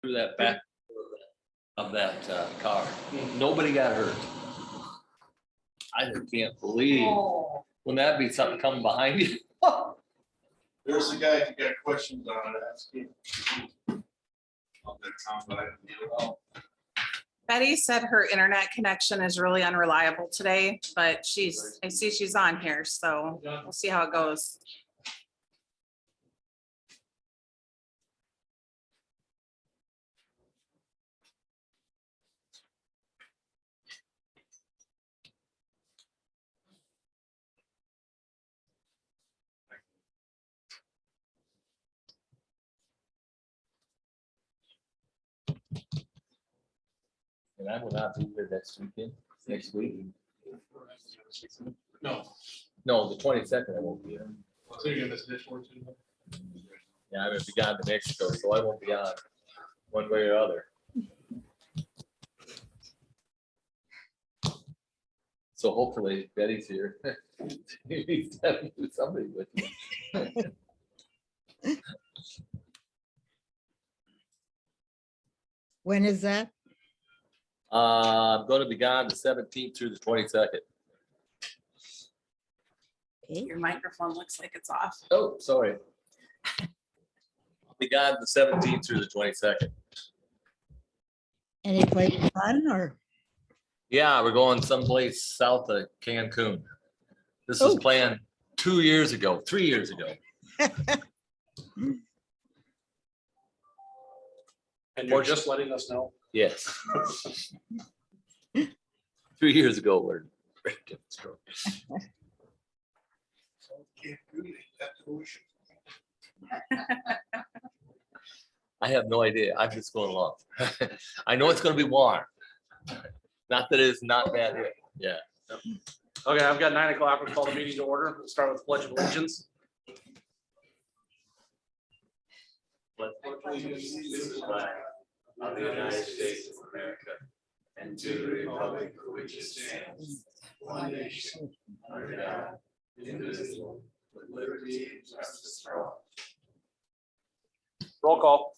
through that back of that of that, uh, car. Nobody got hurt. I just can't believe, Oh, wouldn't that be something coming behind you? There's a guy, if you got questions on it, ask him. Of that sound, but I didn't hear it. Betty said her internet connection is really unreliable today, but she's, I see she's on here, so we'll see how it goes. And I will not be here next weekend, next week. No, No, the twenty-second I won't be here. so you're gonna miss this one too. Yeah, I'm gonna be gone to Mexico, so I won't be on one way or other. So hopefully Betty's here. Somebody with me. When is that? Uh, I'm gonna be gone the seventeenth through the twenty-second. Okay. Your microphone looks like it's off. Oh, sorry. I'll Be gone the seventeenth through the twenty-second. Any place fun or? Yeah, we're going someplace south of Cancun. This was Oh. planned two years ago, three years ago. And you're you're just just letting us know. Yes. Three years ago, we're. we're different story. I have no idea. I'm just going along. I know it's gonna be warm. Not that it's not bad here. Okay, I've got nine o'clock. We'll call the meeting to order. We'll start with pledge of allegiance. of the United States of America and to the republic for which it stands, one nation, under God, indivisible, with liberty and justice for all. Roll call.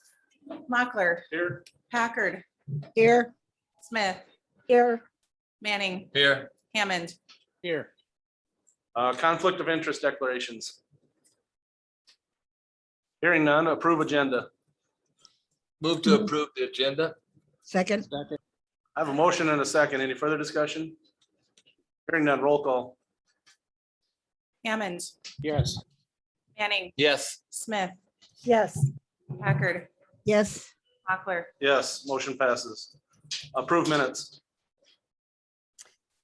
Mochler, Here. Packard, Here, Smith, here, Manning, Here, Hammond, here. Uh, conflict of interest declarations. Hearing none, approve agenda. move to approve the agenda. Second, I have a motion and a second. Any further discussion? Hearing none, roll call. Hammond. Yes. Manning, Yes. Smith, yes, Packard, yes, Mochler, Yes, motion passes. Approve minutes.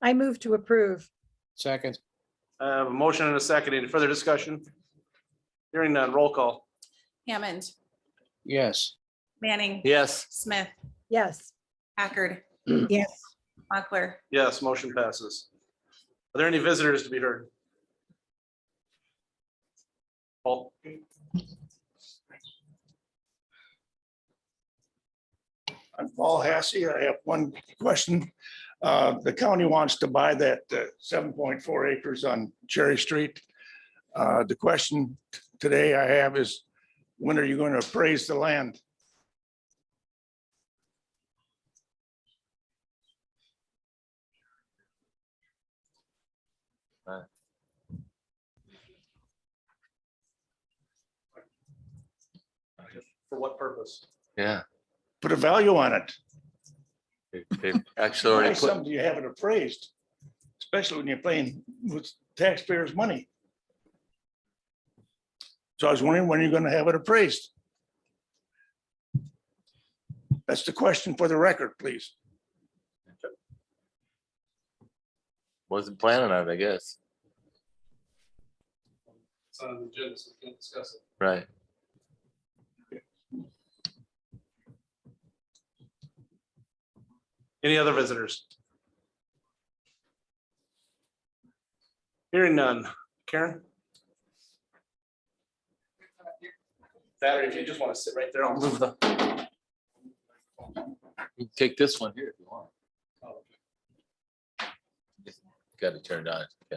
I move to approve. Second, I have a motion and a second. Any further discussion? Hearing none, roll call. Hammond, yes. Manning, Yes. Smith, Yes, Packard, yes. Mochler, Yes, motion passes. Are there any visitors to be heard? Paul? I'm Paul Hassey. I have one question. Uh, The county wants to buy that uh, seven point four acres on Cherry Street. Uh, The question t- today I have is, when are you going to appraise the land? For what purpose? Yeah. Put a value on it. They've Actually, Why already put, something you have it appraised? Especially when you're paying with taxpayers' money. So I was wondering when you're going to have it appraised? That's the question for the record, please. wasn't planning on it, I guess. It's on the agenda, so we can't discuss it. Right. Any other visitors? Hearing none. Karen? That, or if you just want to sit right there, I'll move the. You can Take this one here if you want. Got it turned on. Yeah.